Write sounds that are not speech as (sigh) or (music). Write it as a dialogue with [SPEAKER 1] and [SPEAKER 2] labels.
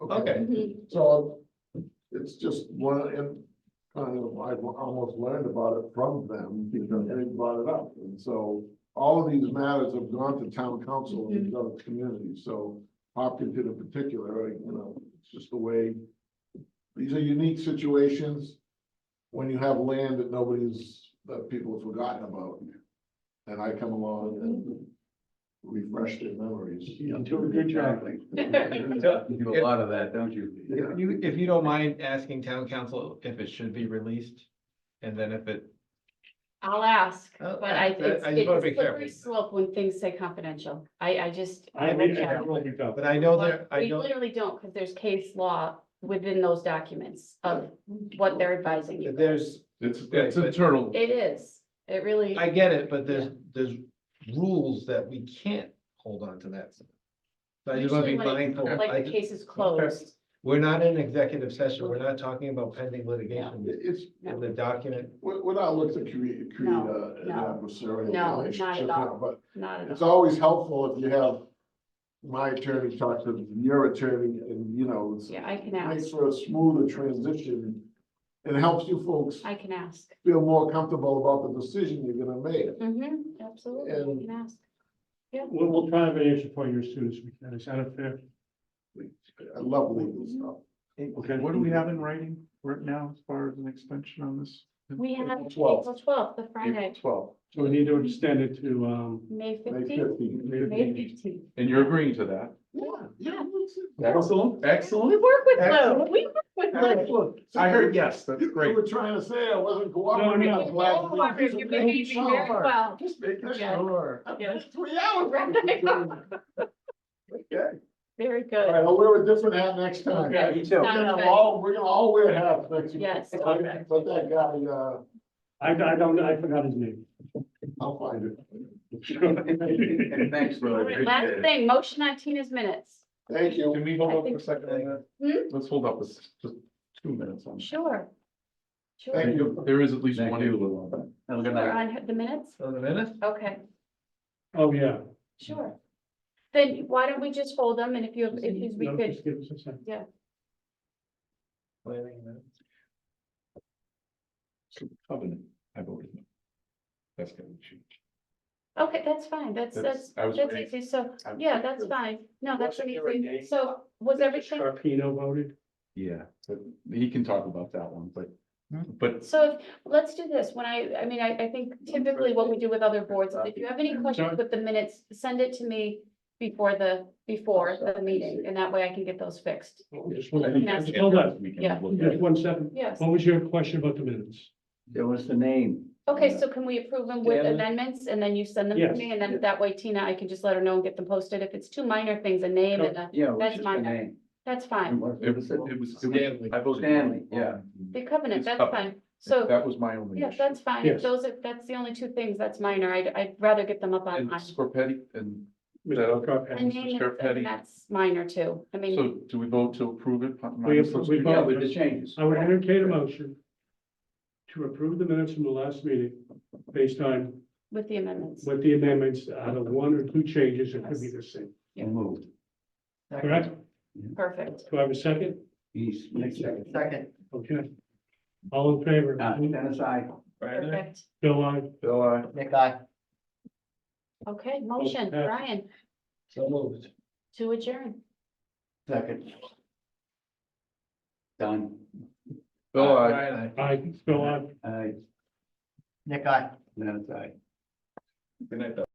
[SPEAKER 1] okay,
[SPEAKER 2] Mm-hmm. So it's just one, and kind of, I almost learned about it from them because they brought it up. And so all of these matters have gone to town council in these other communities, so Hopkinton in particular, you know, it's just the way. These are unique situations when you have land that nobody's, that people have forgotten about. And I come along and refresh their memories.
[SPEAKER 3] You do a good job.
[SPEAKER 1] So,
[SPEAKER 3] You do a lot of that, don't you?
[SPEAKER 2] Yeah.
[SPEAKER 1] if you, if you don't mind asking town council if it should be released, and then if it,
[SPEAKER 4] I'll ask,
[SPEAKER 1] Oh,
[SPEAKER 4] but I,
[SPEAKER 1] that- that-
[SPEAKER 4] it's,
[SPEAKER 1] I just wanna
[SPEAKER 4] it's
[SPEAKER 1] be careful.
[SPEAKER 4] slippery slope when things say confidential. I, I just.
[SPEAKER 5] I
[SPEAKER 4] will
[SPEAKER 5] mean, I
[SPEAKER 4] check.
[SPEAKER 5] don't think so.
[SPEAKER 1] but I know there, I
[SPEAKER 4] We
[SPEAKER 1] know.
[SPEAKER 4] literally don't, because there's case law within those documents of what they're advising you.
[SPEAKER 1] There's,
[SPEAKER 2] It's,
[SPEAKER 1] it's
[SPEAKER 2] internal.
[SPEAKER 4] It is, it really,
[SPEAKER 1] I get it, but there's, there's rules that we can't hold on to that. stuff. So I just wanna be
[SPEAKER 4] Usually when it-
[SPEAKER 1] mindful, I
[SPEAKER 4] like the
[SPEAKER 1] just-
[SPEAKER 4] case is closed.
[SPEAKER 1] we're not in executive session, we're not talking about pending litigation,
[SPEAKER 2] It's,
[SPEAKER 4] No.
[SPEAKER 1] in the document,
[SPEAKER 2] We're, we're not looking to create, create
[SPEAKER 4] No,
[SPEAKER 2] a- an
[SPEAKER 4] no.
[SPEAKER 2] adversarial
[SPEAKER 4] No, not at
[SPEAKER 2] relationship
[SPEAKER 4] all.
[SPEAKER 2] now, but
[SPEAKER 4] Not at all.
[SPEAKER 2] it's always helpful if you have my attorney talk to your attorney and, you know, it's-
[SPEAKER 4] Yeah, I can
[SPEAKER 2] it
[SPEAKER 4] ask,
[SPEAKER 2] makes for a smoother transition. It helps you folks
[SPEAKER 4] I can ask.
[SPEAKER 2] feel more comfortable about the decision you're gonna make.
[SPEAKER 4] Mm-hmm, absolutely,
[SPEAKER 2] And-
[SPEAKER 4] I can ask.
[SPEAKER 5] We'll, we'll try to answer for you as soon as we can. Is that a fair?
[SPEAKER 2] I love legal
[SPEAKER 4] Mm-hmm.
[SPEAKER 2] stuff.
[SPEAKER 5] Okay.
[SPEAKER 6] What do we have in writing right now as far as an extension on this?
[SPEAKER 4] We have
[SPEAKER 2] April
[SPEAKER 4] April twelfth, the Friday,
[SPEAKER 2] Twelve,
[SPEAKER 5] So we need to extend it to, um.
[SPEAKER 4] May
[SPEAKER 2] May
[SPEAKER 4] fifteenth,
[SPEAKER 2] fifteenth.
[SPEAKER 4] May fifteenth.
[SPEAKER 3] And you're agreeing to that?
[SPEAKER 2] Yeah, yeah.
[SPEAKER 3] Excellent,
[SPEAKER 4] We
[SPEAKER 3] excellent.
[SPEAKER 4] work with Lou,
[SPEAKER 3] Excellent.
[SPEAKER 4] we work with Lou.
[SPEAKER 3] I heard yes, that's
[SPEAKER 2] You
[SPEAKER 3] great.
[SPEAKER 2] were trying to say I wasn't
[SPEAKER 5] No,
[SPEAKER 2] cooperating.
[SPEAKER 5] no.
[SPEAKER 2] I'm
[SPEAKER 4] Oh,
[SPEAKER 2] glad we-
[SPEAKER 4] You may be very well.
[SPEAKER 2] Just making
[SPEAKER 4] Yeah.
[SPEAKER 2] sure.
[SPEAKER 4] Yeah.
[SPEAKER 2] Three hours.
[SPEAKER 4] (laughs)
[SPEAKER 2] Okay.
[SPEAKER 4] Very
[SPEAKER 2] All
[SPEAKER 4] good.
[SPEAKER 2] right, I'll wear a different hat next time.
[SPEAKER 4] Okay.
[SPEAKER 3] Me too.
[SPEAKER 2] We're
[SPEAKER 4] Sounds
[SPEAKER 2] gonna
[SPEAKER 4] good.
[SPEAKER 2] all, we're gonna all wear hats next year.
[SPEAKER 4] Yes.
[SPEAKER 2] Let that guy, uh,
[SPEAKER 5] I, I don't, know. I forgot his name.
[SPEAKER 2] I'll find it.
[SPEAKER 3] Thanks, Lou. Appreciate
[SPEAKER 4] Last
[SPEAKER 3] it.
[SPEAKER 4] thing, motion on Tina's minutes.
[SPEAKER 2] Thank you.
[SPEAKER 3] Can we
[SPEAKER 4] I
[SPEAKER 3] hold up
[SPEAKER 4] think-
[SPEAKER 3] a second? on
[SPEAKER 4] Hmm?
[SPEAKER 3] that? Let's hold up this, just two minutes on. that.
[SPEAKER 4] Sure. Sure,
[SPEAKER 2] Thank you.
[SPEAKER 3] There is at least
[SPEAKER 6] Thank
[SPEAKER 3] one.
[SPEAKER 6] you,
[SPEAKER 3] Have
[SPEAKER 4] Sure, on the minutes,
[SPEAKER 1] on the minute,
[SPEAKER 4] okay,
[SPEAKER 5] Oh, yeah.
[SPEAKER 4] sure. Then why don't we just hold them and if you, if you- we
[SPEAKER 5] No,
[SPEAKER 4] could,
[SPEAKER 5] just give us a second.
[SPEAKER 1] planning minute.
[SPEAKER 3] Covenant, I voted. no. That's gonna be changed.
[SPEAKER 4] okay, that's fine, that's,
[SPEAKER 3] That's-
[SPEAKER 4] that's,
[SPEAKER 3] I was
[SPEAKER 4] that's
[SPEAKER 3] waiting.
[SPEAKER 4] easy, so,
[SPEAKER 3] I'm-
[SPEAKER 4] yeah, that's fine, no, that's
[SPEAKER 5] Wasn't there a
[SPEAKER 4] easy.
[SPEAKER 5] name?
[SPEAKER 4] So was everything,
[SPEAKER 5] Sharpino voted.
[SPEAKER 3] Yeah, but he can talk about that one, but, but
[SPEAKER 4] so if- let's do this, when I, I mean, I, I think typically what we do with other boards, is if you have any questions with the minutes, send it to me before the, before the meeting, and that way I can get those fixed,
[SPEAKER 5] Just one-
[SPEAKER 4] Yeah.
[SPEAKER 5] just Hold on,
[SPEAKER 3] we
[SPEAKER 4] Yeah.
[SPEAKER 3] can look at
[SPEAKER 5] just
[SPEAKER 3] it.
[SPEAKER 5] one second.
[SPEAKER 4] yes.
[SPEAKER 5] What was your question about the minutes?
[SPEAKER 6] There was the name.
[SPEAKER 4] Okay, so can we approve them with
[SPEAKER 6] Scan it.
[SPEAKER 4] amendments and then you send them to
[SPEAKER 5] Yes.
[SPEAKER 4] me and then that way Tina, I can just let her know and get them posted. If it's two minor things, a name and a,
[SPEAKER 6] Yeah, it was
[SPEAKER 4] That's
[SPEAKER 6] just
[SPEAKER 4] my
[SPEAKER 6] the name.
[SPEAKER 4] that's
[SPEAKER 3] It
[SPEAKER 4] fine.
[SPEAKER 3] was, it was, it was, I voted. no.
[SPEAKER 6] Stanley, yeah.
[SPEAKER 4] The covenant,
[SPEAKER 3] It's
[SPEAKER 4] that's
[SPEAKER 3] covenant.
[SPEAKER 4] fine. So,
[SPEAKER 3] That was my only
[SPEAKER 4] yeah,
[SPEAKER 3] issue.
[SPEAKER 4] that's fine. If
[SPEAKER 5] Yes.
[SPEAKER 4] those are, that's the only two things, that's minor. I'd, I'd rather get them up on.
[SPEAKER 3] And Scorpetti, and
[SPEAKER 5] Mr. Carpenter?
[SPEAKER 4] A name,
[SPEAKER 3] Mr. Petty.
[SPEAKER 4] and that's minor too. I mean,
[SPEAKER 3] so do we vote to approve it?
[SPEAKER 5] We appro- we
[SPEAKER 6] Yeah,
[SPEAKER 5] vote.
[SPEAKER 6] with the changes.
[SPEAKER 3] Oh.
[SPEAKER 5] I would entertain a motion to approve the minutes from the last meeting based on
[SPEAKER 4] with the amendments.
[SPEAKER 5] what the amendments, out of one or two changes, it could be the same,
[SPEAKER 4] Yeah.
[SPEAKER 6] Moved.
[SPEAKER 5] correct?
[SPEAKER 4] Perfect.
[SPEAKER 5] Do I have a second?
[SPEAKER 6] He's next second.
[SPEAKER 1] Second.
[SPEAKER 5] Okay. All in favor?
[SPEAKER 6] Uh, Dennis, I.
[SPEAKER 4] Perfect.
[SPEAKER 5] Bill, I.
[SPEAKER 3] Bill, I.
[SPEAKER 1] Nick, I.
[SPEAKER 4] Okay, motion,
[SPEAKER 5] Okay.
[SPEAKER 4] Brian,
[SPEAKER 1] So moved.
[SPEAKER 4] to adjourn.
[SPEAKER 6] Second. Done.
[SPEAKER 3] Bill, I.
[SPEAKER 1] Brian, aye.
[SPEAKER 5] I, Bill, I.
[SPEAKER 6] I.
[SPEAKER 1] Nick, I.
[SPEAKER 6] Dennis, I.
[SPEAKER 3] Good night, Bill.